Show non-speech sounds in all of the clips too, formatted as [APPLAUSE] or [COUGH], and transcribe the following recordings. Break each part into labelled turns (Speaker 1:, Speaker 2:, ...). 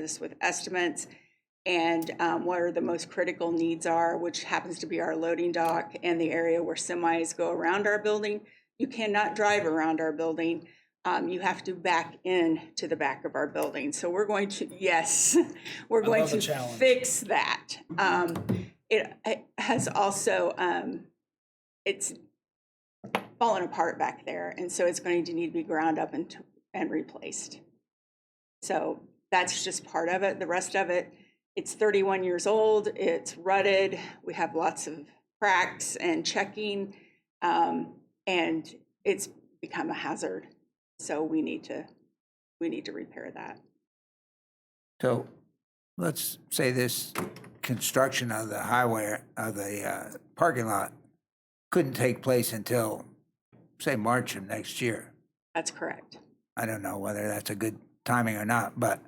Speaker 1: this with estimates and um, where the most critical needs are, which happens to be our loading dock and the area where semis go around our building. You cannot drive around our building. Um, You have to back in to the back of our building. So we're going to, yes, [LAUGHS] we're going
Speaker 2: love a
Speaker 1: to
Speaker 2: challenge.
Speaker 1: fix that. Um, It it has also, um, it's fallen apart back there, and so it's going to need to be ground up and, and replaced. So that's just part of it. The rest of it, it's 31 years old, it's rutted, we have lots of cracks and checking, um, and it's become a hazard. So we need to, we need to repair that.
Speaker 3: So let's say this construction of the highway, of the uh, parking lot couldn't take place until, say, March of next year.
Speaker 1: That's correct.
Speaker 3: I don't know whether that's a good timing or not, but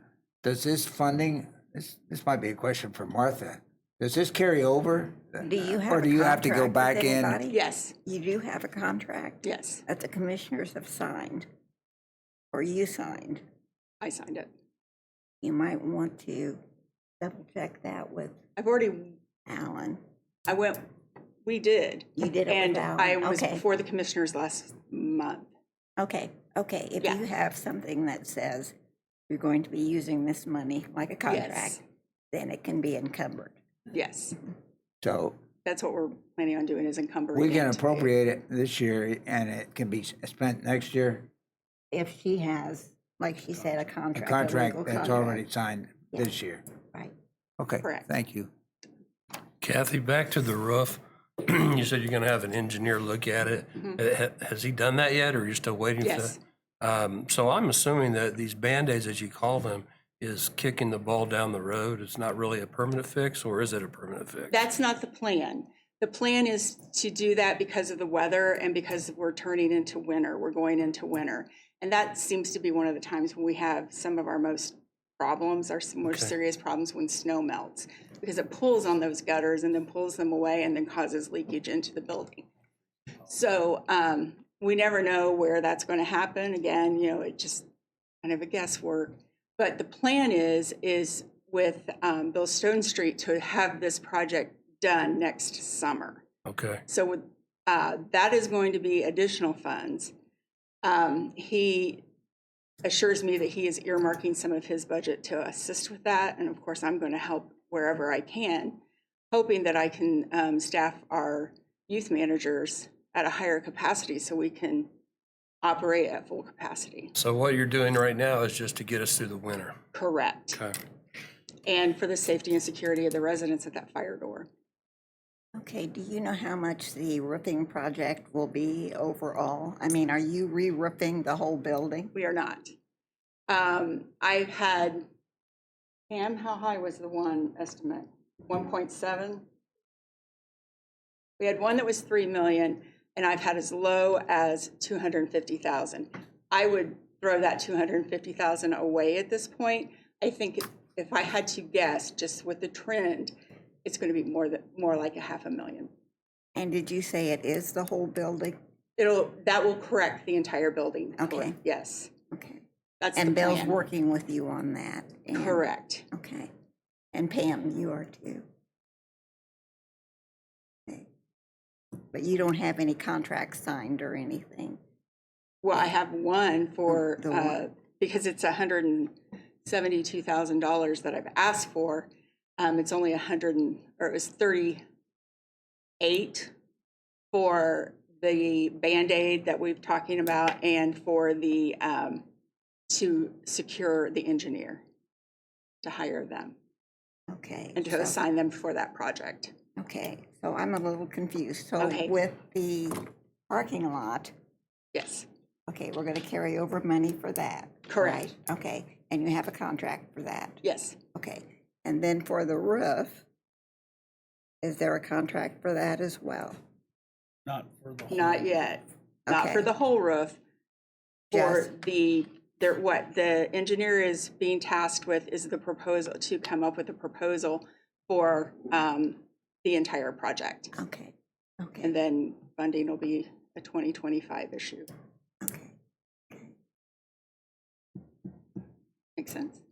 Speaker 3: does this funding, this, this might be a question for Martha. Does this carry over?
Speaker 4: Do you have
Speaker 3: Or
Speaker 4: a
Speaker 3: do you have to go
Speaker 4: contract
Speaker 3: back
Speaker 4: with
Speaker 3: in?
Speaker 4: anybody?
Speaker 1: Yes,
Speaker 4: You do have a contract
Speaker 1: yes,
Speaker 4: that the commissioners have signed, or you signed.
Speaker 1: I signed it.
Speaker 4: You might want to double check that with
Speaker 1: I've already,
Speaker 4: Alan.
Speaker 1: I went, we did.
Speaker 4: You did it
Speaker 1: And
Speaker 4: with
Speaker 1: I
Speaker 4: Alan,
Speaker 1: was
Speaker 4: okay.
Speaker 1: before the commissioners last month.
Speaker 4: Okay, okay, if
Speaker 1: Yeah.
Speaker 4: you have something that says you're going to be using this money like a
Speaker 1: Yes.
Speaker 4: contract, then it can be encumbered.
Speaker 1: Yes,
Speaker 3: So
Speaker 1: that's what we're planning on doing is encumbering.
Speaker 3: we can
Speaker 1: it.
Speaker 3: appropriate it this year and it can be spent next year?
Speaker 4: If she has, like she said, a
Speaker 3: A
Speaker 4: contract. legal
Speaker 3: contract that's already
Speaker 4: contract,
Speaker 3: signed
Speaker 4: Yeah.
Speaker 3: this year?
Speaker 4: Right.
Speaker 3: Okay,
Speaker 1: Correct.
Speaker 3: thank you.
Speaker 5: Kathy, back to the roof. [CLEARS THROAT] You said you're going to have an engineer look at it. Ha- Has he done that yet, or are you still waiting for
Speaker 1: Yes.
Speaker 5: that? Um, So I'm assuming that these Band-Aids, as you call them, is kicking the ball down the road. It's not really a permanent fix, or is it a permanent fix?
Speaker 1: That's not the plan. The plan is to do that because of the weather and because we're turning into winter, we're going into winter. And that seems to be one of the times when we have some of our most problems, our s- more serious problems when snow melts. Because it pulls on those gutters and then pulls them away and then causes leakage into the building. So um, we never know where that's going to happen. Again, you know, it just kind of a guesswork. But the plan is, is with um, Bill Stone Street to have this project done next summer.
Speaker 5: Okay,
Speaker 1: So with, uh, that is going to be additional funds. Um, He assures me that he is earmarking some of his budget to assist with that, and of course, I'm going to help wherever I can, hoping that I can um, staff our youth managers at a higher capacity so we can operate at full capacity.
Speaker 5: so what you're doing right now is just to get us through the winter.
Speaker 1: Correct.
Speaker 5: Okay.
Speaker 1: And for the safety and security of the residents at that fire door.
Speaker 4: Okay, do you know how much the roofing project will be overall? I mean, are you re-roofing the whole building?
Speaker 1: We are not. Um, I've had, Pam, how high was the one estimate? One point seven? We had one that was three million, and I've had as low as two hundred and fifty thousand. I would throw that two hundred and fifty thousand away at this point. I think if- if I had to guess, just with the trend, it's gonna be more than, more like a half a million.
Speaker 4: And did you say it is the whole building?
Speaker 1: It'll, that will correct the entire building.
Speaker 4: Okay.
Speaker 1: Yes,
Speaker 4: Okay.
Speaker 1: that's the
Speaker 4: And Bill's
Speaker 1: plan.
Speaker 4: working with you on that? and-
Speaker 1: Correct.
Speaker 4: Okay. And Pam, you are too? Okay. But you don't have any contracts signed or anything?
Speaker 1: Well, I have one for,
Speaker 4: The- the
Speaker 1: uh,
Speaker 4: one.
Speaker 1: because it's hundred and seventy-two thousand dollars that I've asked for. Um, it's only a hundred and, or it was thirty-eight for the Band-Aid that we've talking about and for the, um, to secure the engineer, to hire them
Speaker 4: Okay.
Speaker 1: and to
Speaker 4: so-
Speaker 1: assign them for that project.
Speaker 4: Okay, so I'm a little confused. So
Speaker 1: Okay.
Speaker 4: with the parking lot,
Speaker 1: Yes,
Speaker 4: okay, we're going to carry over money for that?
Speaker 1: Correct.
Speaker 4: right? Okay, and you have a contract for that?
Speaker 1: yes.
Speaker 4: Okay, and then for the roof, is there a contract for that as well?
Speaker 2: Not for the whole.
Speaker 1: Not yet. Not for
Speaker 4: Okay.
Speaker 1: the whole roof. For
Speaker 4: Just-
Speaker 1: the, there, what the engineer is being tasked with is the proposal, to come up with a proposal for um, the entire project.
Speaker 4: Okay,
Speaker 1: And
Speaker 4: okay,
Speaker 1: then funding will be a 2025 issue.
Speaker 4: okay.
Speaker 1: Makes sense?